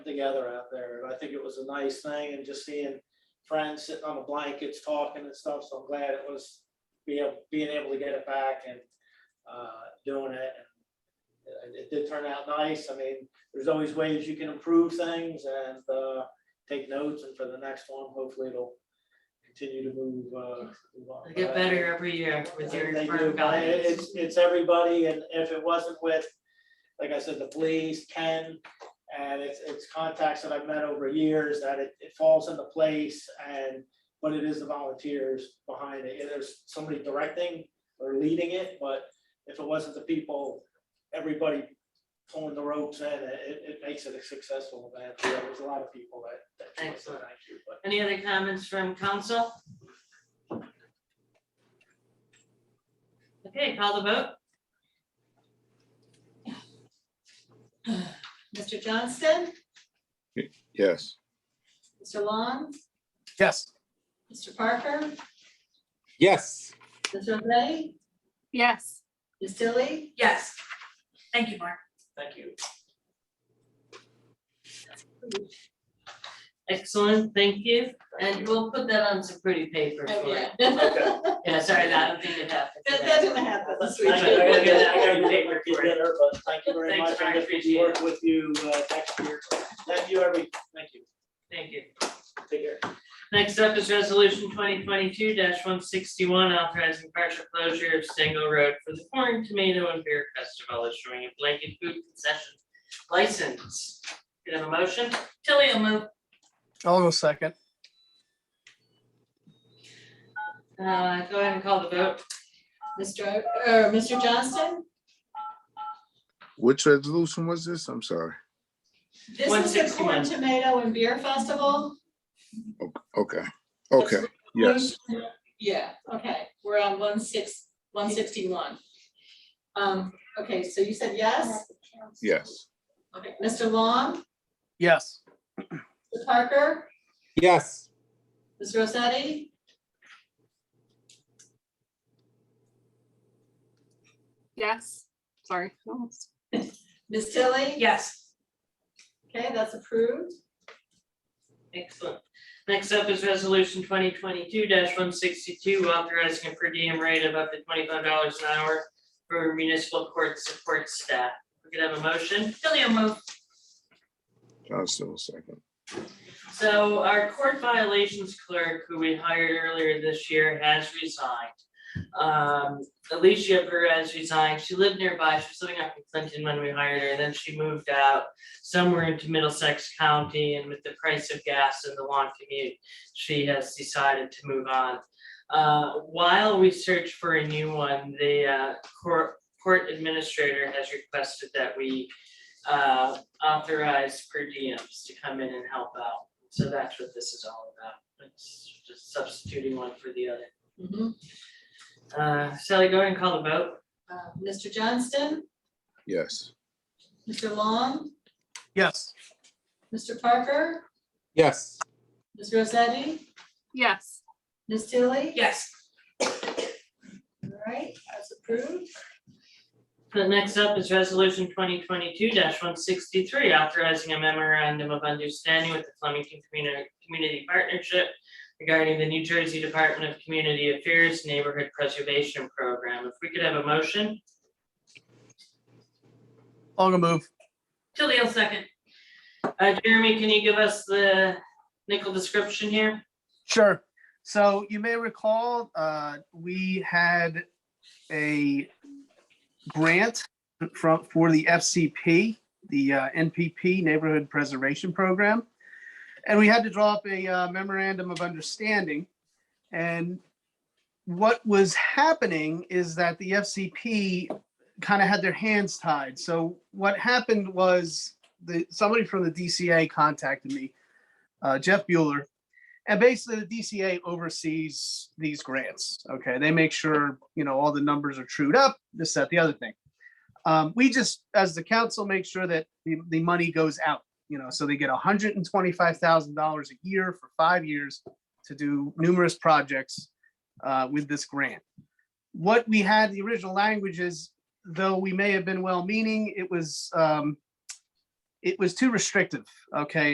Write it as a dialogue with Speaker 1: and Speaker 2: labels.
Speaker 1: together out there. I think it was a nice thing and just seeing friends sitting on the blankets, talking and stuff. So I'm glad it was being, being able to get it back and uh, doing it. And It it did turn out nice. I mean, there's always ways you can improve things and uh, take notes. And for the next one, hopefully it'll continue to move. uh, move on.
Speaker 2: They get better every year with your
Speaker 1: They
Speaker 2: firm
Speaker 1: do, but it-
Speaker 2: values.
Speaker 1: It's, it's everybody, and if it wasn't with, like I said, the police, Ken, and it's, it's contacts that I've met over years, that it, it falls into place, and, but it is the volunteers behind it, and there's somebody directing or leading it, but if it wasn't the people, everybody pulling the ropes in, it, it- it makes it a successful event, You know, there's a lot of people that, that joined, so
Speaker 2: Excellent.
Speaker 1: thank you, but.
Speaker 2: Any other comments from council? Okay, call the vote.
Speaker 3: Mr. Johnston,
Speaker 4: Yes.
Speaker 3: Mr. Long,
Speaker 5: Yes.
Speaker 3: Mr. Parker,
Speaker 5: Yes.
Speaker 3: Ms. O'Day,
Speaker 6: Yes.
Speaker 3: Ms. Dilly,
Speaker 7: Yes. Thank you, Mark.
Speaker 1: Thank you.
Speaker 2: Excellent, thank you. And we'll put that on some pretty paper for you.
Speaker 3: Okay. That
Speaker 2: Yeah, sorry, I don't think it happened.
Speaker 3: Oh, that
Speaker 2: today.
Speaker 3: didn't happen this
Speaker 1: I gotta go get- I
Speaker 3: weekend.
Speaker 1: gotta go get my kid dinner, but thank you very
Speaker 2: Thanks,
Speaker 1: much.
Speaker 2: Frank,
Speaker 1: I
Speaker 2: appreciate
Speaker 1: work with you uh, next year. Thank you, every, thank you.
Speaker 2: Thank you.
Speaker 1: Take care.
Speaker 2: Next up is resolution twenty twenty-two one sixty-one, authorizing partial closure of Stango Road for the corn, tomato, and beer festival, issuing a blanket food concession license. Do you have a motion?
Speaker 7: Tilly will move.
Speaker 5: I'll go second.
Speaker 2: Uh, go ahead and call the vote.
Speaker 3: Mr. O- or Mr. Johnston,
Speaker 4: Which resolution was this? I'm sorry.
Speaker 3: this is the corn
Speaker 2: 161.
Speaker 3: tomato and beer festival.
Speaker 4: Okay. Okay. Yes.
Speaker 3: Yeah, okay, we're on one six, one sixty-one. Um, okay, so you said yes?
Speaker 4: Yes.
Speaker 3: Okay, Mr. Long,
Speaker 5: Yes.
Speaker 3: Mr. Parker,
Speaker 5: Yes.
Speaker 3: Ms. Rosetti?
Speaker 6: Yes. Sorry. Almost.
Speaker 3: Ms. Tilly?
Speaker 7: Yes.
Speaker 3: Okay, that's approved.
Speaker 2: Excellent. Next up is resolution twenty twenty-two one sixty-two, authorizing a per diem rate of up to twenty-five dollars an hour for municipal court support staff. We could have a motion.
Speaker 7: Tilly will move.
Speaker 4: Johnston will second.
Speaker 2: So our court violations clerk, who we hired earlier this year, has resigned. Um, Alicia Perez resigned. She lived nearby. She was living up in Clinton when we hired her, and then she moved out somewhere into Middlesex County, and with the price of gas and the long commute, she has decided to move on. Uh, while we search for a new one, the uh, court, court administrator has requested that we uh, authorize per diems to come in and help out. So that's what this is all about. It's just substituting one for the other.
Speaker 3: Mhm.
Speaker 2: Uh, Sally, go ahead and call the vote.
Speaker 3: Uh, Mr. Johnston,
Speaker 4: Yes.
Speaker 3: Mr. Long,
Speaker 5: Yes.
Speaker 3: Mr. Parker,
Speaker 5: Yes.
Speaker 3: Ms. Rosetti,
Speaker 6: Yes.
Speaker 3: Ms. Tilly?
Speaker 7: Yes.
Speaker 3: All right, that's approved.
Speaker 2: The next up is resolution twenty twenty-two one sixty-three, authorizing a memorandum of understanding with the Flemington Community, Community Partnership regarding the New Jersey Department of Community Affairs Neighborhood Preservation Program. If we could have a motion?
Speaker 5: I'll go move.
Speaker 7: Tilly will second.
Speaker 2: Uh, Jeremy, can you give us the nickel description here?
Speaker 5: Sure. So you may recall, uh, we had a grant from, for the FCP, the uh, NPP Neighborhood Preservation Program. And we had to draw up a uh, memorandum of understanding. And what was happening is that the FCP kind of had their hands tied. So what happened was the, somebody from the DCA contacted me, uh, Jeff Bueller, and basically the DCA oversees these grants. Okay, they make sure, you know, all the numbers are trued up, this, that, the other thing. Um, we just, as the council, make sure that the, the money goes out, you know, so they get hundred and twenty-five thousand dollars a year for five years to do numerous projects uh, with this grant. What we had, the original language is, though we may have been well-meaning, it was um, it was too restrictive, okay?